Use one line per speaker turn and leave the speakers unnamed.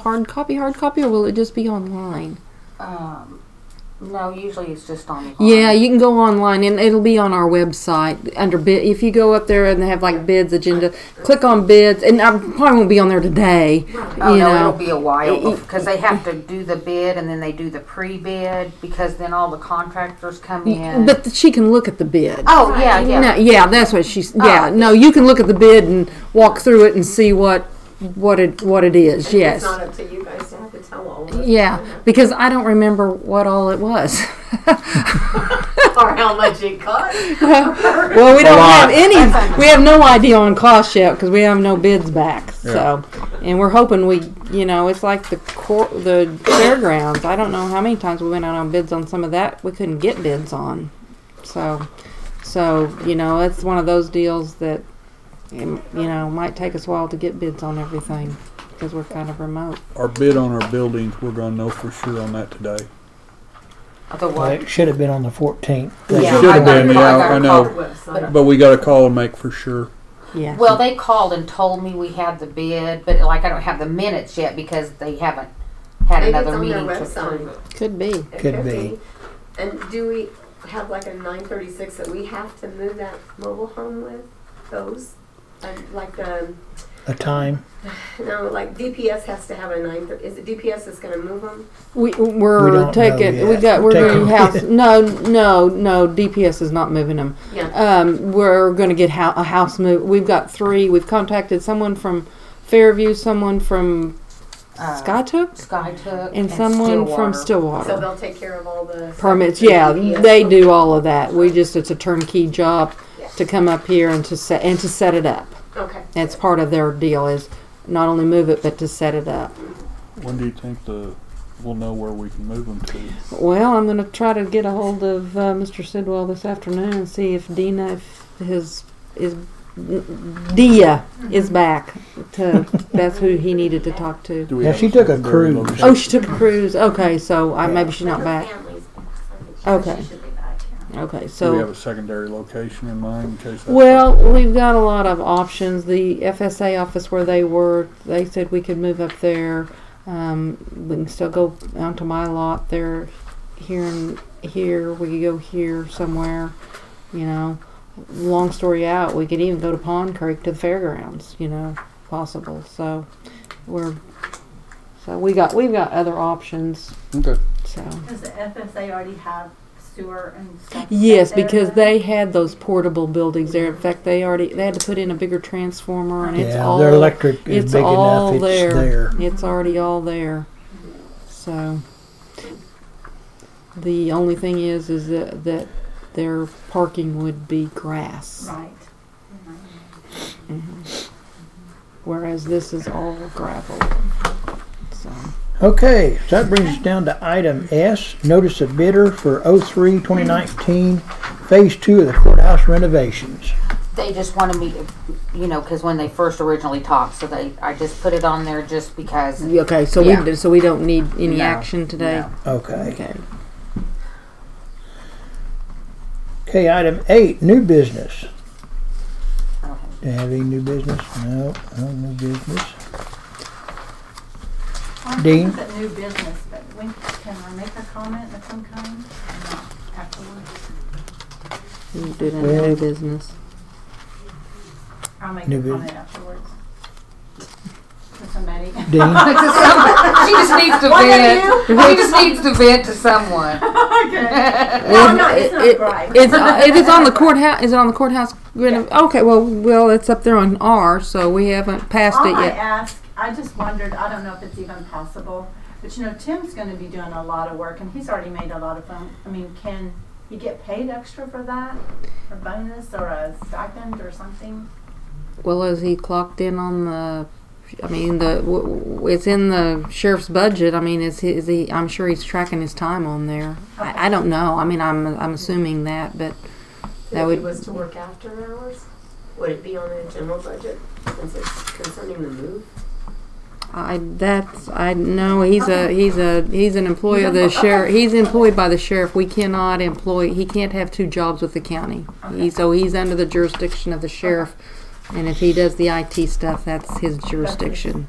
hard copy, hard copy, or will it just be online?
Um, no, usually it's just online.
Yeah, you can go online and it'll be on our website under bid. If you go up there and they have like bids agenda, click on bids, and I probably won't be on there today.
Oh,
you
no,
know,
it'll be a while because they have to do the bid and then they do the pre-bid because then all the contractors come in.
but she can look at the bid.
oh yeah, yeah.
No, yeah, Oh. that's what she's. Yeah, no, you can look at the bid and walk through it and see what what it what it is. Yes,
It's not up to you guys to have to tell all of us.
yeah, because I don't remember what all it was.
Or how much it costs.
Well, we don't have
lot.
any. We have no idea on cost yet because we have no bids back. So, and we're hoping we, you know, it's like the cor- the fairgrounds. I don't know how many times we went out on bids on some of that we couldn't get bids on. So, so you know, it's one of those deals that um, you know might take us a while to get bids on everything because we're kind of remote.
Our bid on our buildings, we're gonna know for sure on that today.
The
Well,
what?
it should have been on the 14th.
Yeah,
Should have
I got
been,
a call-
yeah,
got a
I
call.
know.
Website.
But we got a call and make for sure.
Yeah.
Well, they called and told me we had the bid, but like I don't have the minutes yet because they haven't had
Maybe it's
another
on their
meeting to approve
website.
it.
could be.
It
Could be.
And do we have like a nine thirty-six that we have to move that mobile home with, those? And Like, um,
A time.
no, like DPS has to have a nine, thir- is it DPS that's gonna move them?
We
We
we're
don't
taking.
know
We
yet.
got. We're
Take
doing
them.
house. No, no, no. DPS is not moving them.
Yeah,
Um, we're going to get hou- a house move. We've got three. We've contacted someone from Fairview, someone from
Uh,
Skytook,
Sky took
and someone from
so
Stillwater.
they'll take care of all the.
Permits,
stuff that
yeah,
DPS
they
will-
do all of that. We just it's a turnkey job
Yeah.
to come up here and to set and to set it up.
Okay,
That's part of their deal is not only move it but to set it up.
When do you think the, we'll know where we can move them to?
Well, I'm going to try to get a hold of uh, Mr. Sidwell this afternoon and see if Dina, if his is Dia is back. To that's who he needed to talk to.
Do we
Yeah,
have
she took a
secondary
cruise.
location?
Oh, she took a cruise. Okay, so I, maybe she's not back. Okay. Okay,
Do we
so
have a secondary location in mind in case? that's-
well, we've got a lot of options. The FSA office where they were, they said we could move up there. Um, we can still go onto my lot there, here and here. We could go here somewhere. You know, long story out, we could even go to Pond Creek to the fairgrounds. You know, possible. So we're so we got we've got other options.
Okay.
So.
Does the FSA already have sewer and stuff?
Yes,
up there
because
then?
they had those portable buildings there. In fact, they already they had to put in a bigger transformer, and it's
yeah,
all
their electric is
it's
big
all
enough.
there.
It's there.
It's already all there. So the only thing is, is that that their parking would be grass, Mm-hmm.
Right.
whereas this is all gravel. So
Okay, so that brings us down to item S, notice of bidder for 03-2019, phase two of the courthouse renovations.
They just wanted me, to- you know, because when they first originally talked, so they I just put it on there just because.
okay, so
Yeah.
we so we don't need any
No,
action today.
no.
Okay.
Okay.
Okay, item eight, new business.
I don't have-
Do you have any new business? No, no new business.
Well,
Dean?
it's a new business, but when, can I make a comment of some kind? Or not Afterwards,
We can do that in new business.
I'll make a
New business.
comment afterwards. To somebody.
Dean?
she just needs to vent. She just needs to vent to someone.
Well,
no, it's
it-
not
it-
right.
It's, uh, it is on the courthouse. Is it on the courthouse? renov- Okay. Well, well, it's up there on R, so we haven't passed
All
it
I
yet.
ask, I just wondered, I don't know if it's even possible, but you know, Tim's gonna be doing a lot of work and he's already made a lot of phone, I mean, can he get paid extra for that? A bonus or a stipend or something?
Well, is he clocked in on the? I mean, the w- w- it's in the sheriff's budget. I mean, is he? Is he I'm sure he's tracking his time on there. I, I don't know. I mean, I'm I'm assuming that, but That
if
would-
it was to work after hours, would it be on the general budget since it's concerning the move?
I that's I know he's a
Okay.
he's a he's an employee of the sheriff. He's employed by the sheriff. We cannot employ. He can't have two jobs with the county. He, so he's under the jurisdiction of the sheriff. And if he does the IT stuff, that's his jurisdiction.